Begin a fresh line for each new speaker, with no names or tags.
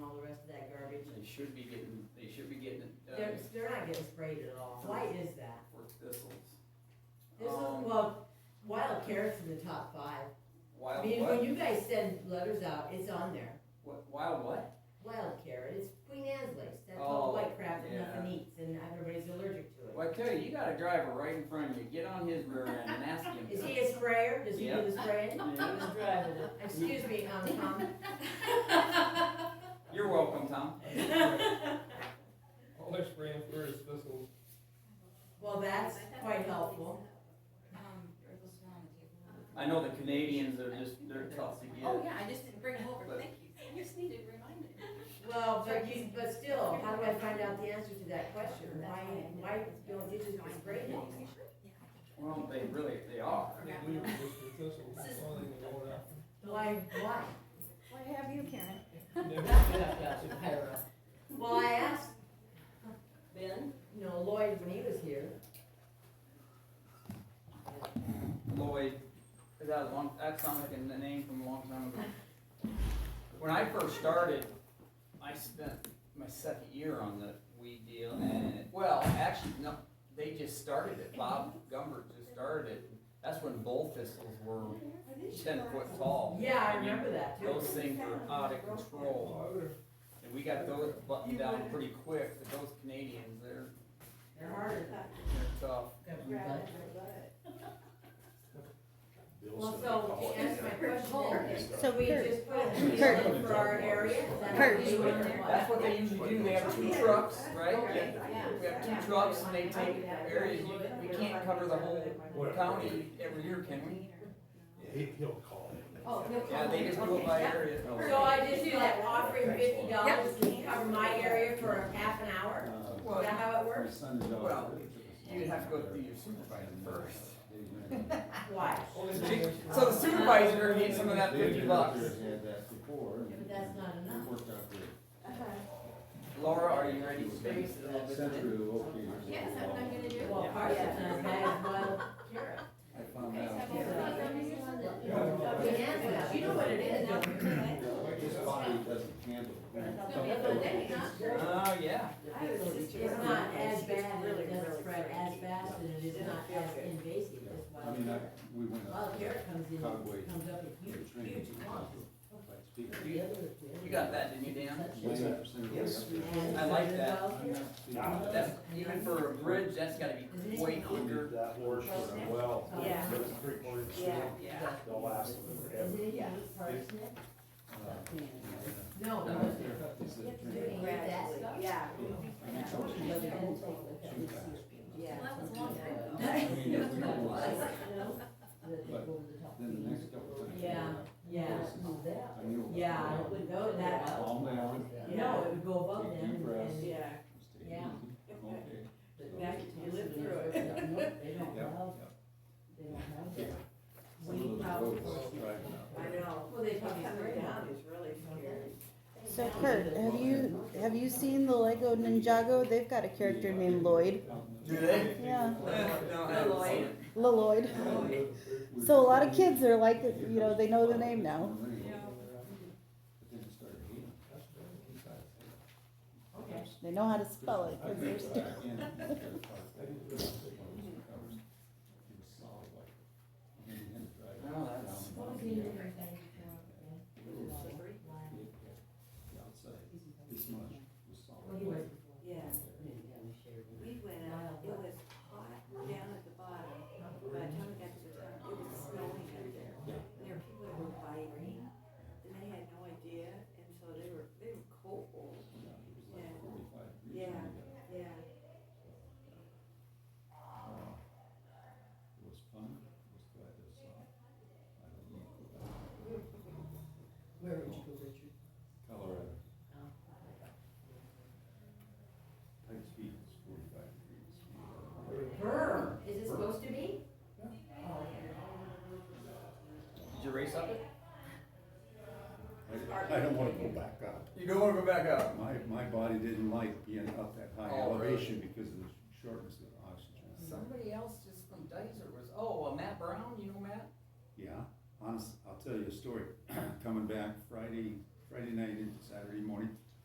should be getting, they should be getting it
They're,
done
they're not getting sprayed at all. Why is that?
for thistles.
This is,
Um,
well, wild carrots in the top five. I
Wild
mean,
what?
when you guys send letters out, it's on there.
What, wild what?
Wild carrot, it's Queen Anne's lace, that's all
Oh,
white crap that nothing
yeah.
eats, and everybody's allergic to it.
Well, I tell you, you got a driver right in front of you, get on his rear end and ask him.
Is he a sprayer? Does he do the
Yep.
spraying?
Yeah.
Excuse me, um, Tom.
You're welcome, Tom.
All they're spraying for is thistles.
Well, that's quite helpful.
I know the Canadians are just, they're tough to get.
Um, Oh, yeah, I just didn't bring them over,
But-
thank you. You just needed reminded.
Well, but you, but still, how do I find out the answer to that question? Why, why don't you just spray things?
Well, they really, they are.
They leave it just for thistles, that's all they can go
Why, why?
Why have you, Karen?
after.
Well, I asked,
Ben?
you know, Lloyd when he was here,
Lloyd, is that a long, that sounds like a name from a long time ago. When I first started, I spent my second year on the weed deal and, well, actually, no, they just started it. Bob Gumbert just started it. That's when bull thistles were ten foot tall.
yeah, I
mean,
remember that too.
Those things were out of control.
Well, I would've,
And we got those buttoned down pretty quick, but those Canadians, they're,
They're hard.
they're tough.
Well, so to answer my question,
Kurt.
so we just put a deal in for our area? is that what we do in there?
That's what they usually do, they have two trucks, right?
Okay.
We have two trucks and they take areas, you- we can't cover the whole county every year, can we?
He, he'll call it.
Oh, he'll
Yeah, they just go by area.
So I just do like offering fifty dollars to cover my area for a half an hour? Is that
Well,
how it works?
well, you'd have to go through your supervisor first.
Why?
only thing is-
So the supervisor needs some of that fifty bucks.
Had that before. and
But that's not
it
enough.
Worked out good.
Laura, are you ready to space it a little bit?
Sent
then?
through, okay. here's
Yes, that's what I'm gonna do.
Well, Parsons has bags wild carrot.
I found out.
Fucking answer. You know what it is, don't you?
This body doesn't handle.
Oh, yeah.
It's not as bad, it doesn't spread as fast, and it is not as invasive as
I
wild
mean, I,
carrot.
we went up.
Wild carrot comes in,
Conway.
comes up in huge, huge clumps.
Huge.
The other- the other-
You got that, didn't you, Dan?
Yes.
And
I like that.
Nah,
That's, even for a bridge, that's gotta be way quicker.
That horse was a well,
Yeah.
it was three quarters
Yeah.
Yeah.
the last one
Is
forever.
it even parsnip? No,
No.
Is it-
Do you eat that stuff?
Yeah.
But it didn't take the-
Too fast.
Yeah.
Well, that was a long time ago.
I mean, if we don't like it,
That they pulled it up.
Then the next couple times.
Yeah, yeah,
I knew. it was-
yeah, it would go that, up.
Calm down.
no, it would go above them, and, and-
Yeah,
Stay
Yeah.
easy. Okay.
but now you live through it. They don't have, they don't have that.
Some of
We
those
have-
roads, right.
I know.
Well, they
What's
probably
coming
spray
down
down.
is really scary.
So Kurt, have you have you seen the Lego Ninjago? They've got a character named Lloyd.
Do they?
Yeah,
No, I haven't seen it.
Lloyd. So a lot of kids are like, you know, they know the name now.
But then it started healing.
Okay.
They know how to spell it 'cause they're stupid.
No, that's.
What was the name of that? Well, he was before.
Yeah, we went out, it was hot down at the bottom. By the time we got to the top, it was snowing up there. And there were people that were biking, and they had no idea, and so they were, they were cold. Yeah.
It was fun, it was glad to saw. I don't know.
Where would you go, Richard? Oh.
Colorado. Pikes Peak is forty-five degrees.
Burr, is it supposed to be?
Did you race up it?
I, I don't wanna go back up.
You don't wanna go back up.
My, my body didn't like being up that high
Oh, really?
elevation because of the shortness of oxygen.
Somebody else just from Dicer was, oh, uh, Matt Brown, you know Matt?
Yeah, honest, I'll tell you a story. Coming back Friday, Friday night into Saturday morning,